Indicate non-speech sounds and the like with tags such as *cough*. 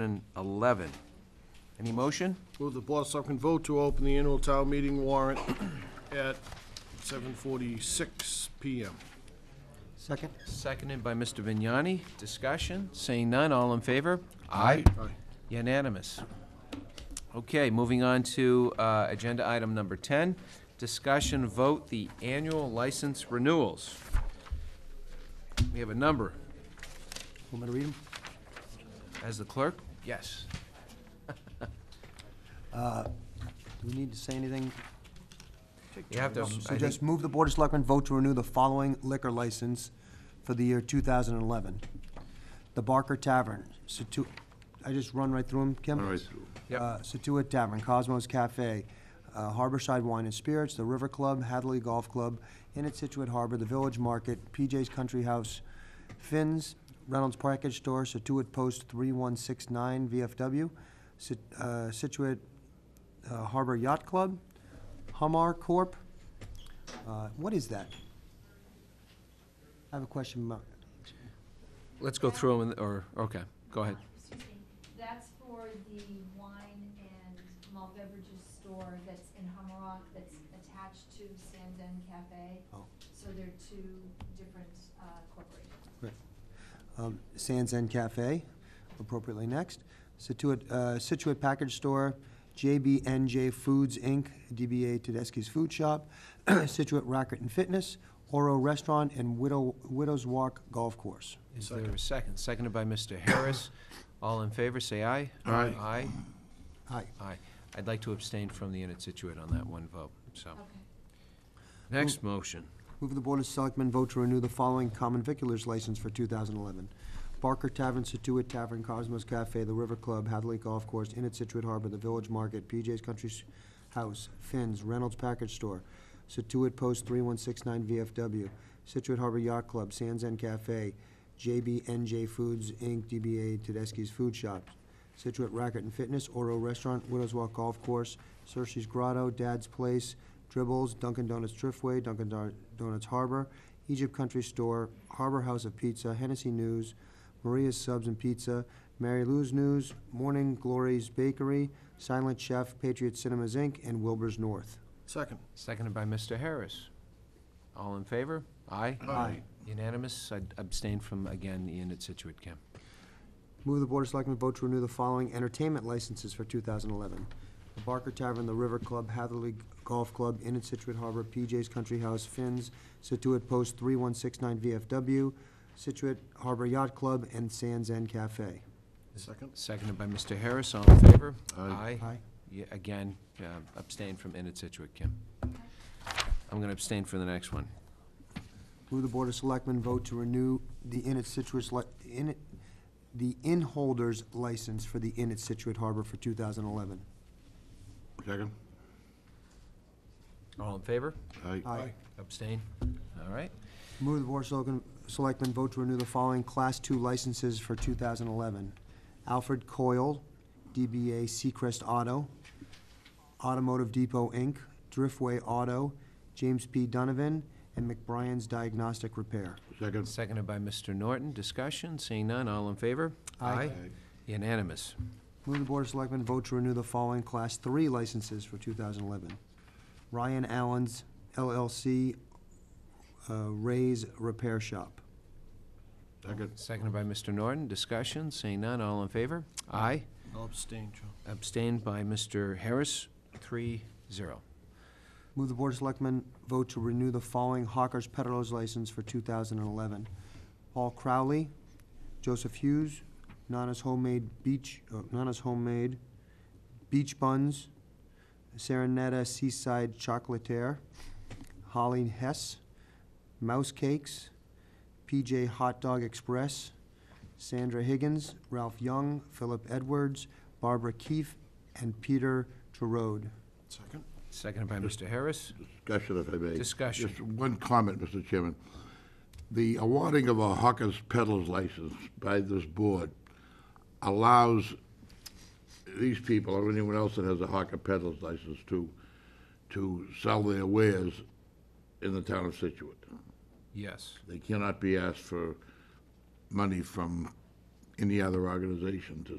2011. Any motion? Move the Board of Selectmen vote to open the annual town meeting warrant *coughs* at 7:46 PM. Second? Seconded by Mr. Vignani. Discussion? Seeing none, all in favor? Aye. Aye. Unanimous. Okay, moving on to uh, agenda item number 10, discussion vote the annual license renewals. We have a number. Want me to read them? As the clerk? Yes. Do we need to say anything? You have to, Um, I So think, just move the Board of Selectmen vote to renew the following liquor license for the year 2011. The Barker Tavern, Situ, I just run right through them, Kim? All right. Yep. Uh, Situate Tavern, Cosmos Cafe, uh, Harborside Wine and Spirits, The River Club, Hadley Golf Club, Inn at Situate Harbor, The Village Market, PJ's Country House, Finn's, Reynolds Package Store, Situate Post 3169 VFW, Sit- uh, Situate uh, Harbor Yacht Club, Humar Corp. Uh, What is that? I have a question about, let's go through them, or, okay, go ahead. Um, Excuse me, that's for the wine and malt beverages store that's in Hummerock, that's attached to Sanden Cafe. Oh. So they're two different uh, corporations. Right. Um, Sands End Cafe, appropriately next. Situate, uh, Situate Package Store, JBNJ Foods, Inc., DBA Tedeschi's Food Shop, *clears throat* Situate Racket and Fitness, Oro Restaurant, and Widow, Widow's Walk Golf Course. Is there a second? Seconded by Mr. Harris. All in favor, say aye. Aye. Aye, Aye. aye. I'd like to abstain from the Unit Situate on that one vote, so. Okay. Next motion. Move the Board of Selectmen vote to renew the following common viculars license for 2011. Barker Tavern, Situate Tavern, Cosmos Cafe, The River Club, Hadley Golf Course, Inn at Situate Harbor, The Village Market, PJ's Country S- House, Finn's, Reynolds Package Store, Situate Post 3169 VFW, Situate Harbor Yacht Club, Sands End Cafe, JBNJ Foods, Inc., DBA Tedeschi's Food Shop, Situate Racket and Fitness, Oro Restaurant, Widows Walk Golf Course, Cersei's Grotto, Dad's Place, Dribbles, Dunkin' Donuts Driftway, Dunkin' Don- Donuts Harbor, Egypt Country Store, Harbor House of Pizza, Hennessy News, Maria's Subs and Pizza, Mary Lou's News, Morning Glory's Bakery, Silent Chef, Patriot Cinemas Inc., and Wilbur's North. Second. Seconded by Mr. Harris. All in favor? Aye? Aye. Unanimous? I abstain from, again, the Unit Situate, Kim. Move the Board of Selectmen vote to renew the following entertainment licenses for 2011. The Barker Tavern, The River Club, Hatherley Golf Club, Inn at Situate Harbor, PJ's Country House, Finn's, Situate Post 3169 VFW, Situate Harbor Yacht Club, and Sands End Cafe. Second. Seconded by Mr. Harris. All in favor? Aye. Aye. Yeah, Again, uh, abstain from Unit Situate, Kim. I'm going to abstain for the next one. Move the Board of Selectmen vote to renew the Inn at Situate, li- Inn at- the inn holders license for the Inn at Situate Harbor for 2011. Second? All in favor? Aye. Aye. Abstain? All right. Move the Board of Selectmen- Selectmen vote to renew the following Class II licenses for 2011. Alfred Coyle, DBA Seacrest Auto, Automotive Depot, Inc., Driftway Auto, James P. Donovan, and McBrien's Diagnostic Repair. Second? Seconded by Mr. Norton. Discussion? Seeing none. All in favor? Aye. Unanimous. Move the Board of Selectmen vote to renew the following Class III licenses for 2011. Ryan Allen's LLC, uh, Ray's Repair Shop. Second? Seconded by Mr. Norton. Discussion? Seeing none. All in favor? Aye. I'll abstain, Joe. Abstained by Mr. Harris, three, zero. Move the Board of Selectmen vote to renew the following hawkers Peddlers license for 2011. Paul Crowley, Joseph Hughes, Nana's Homemade Beach, uh, Nana's Homemade Beach Buns, Serenetta Seaside Chocolatier, Holly Hess, Mouse Cakes, PJ Hot Dog Express, Sandra Higgins, Ralph Young, Philip Edwards, Barbara Keefe, and Peter Terode. Second. Seconded by Mr. Harris. Discussion, if I may. Discussion. Just one comment, Mr. Chairman. The awarding of a hawker's peddler's license by this board allows these people, or anyone else that has a hawker peddler's license, to, to sell their wares in the town of Situate. Yes. They cannot be asked for money from any other organization to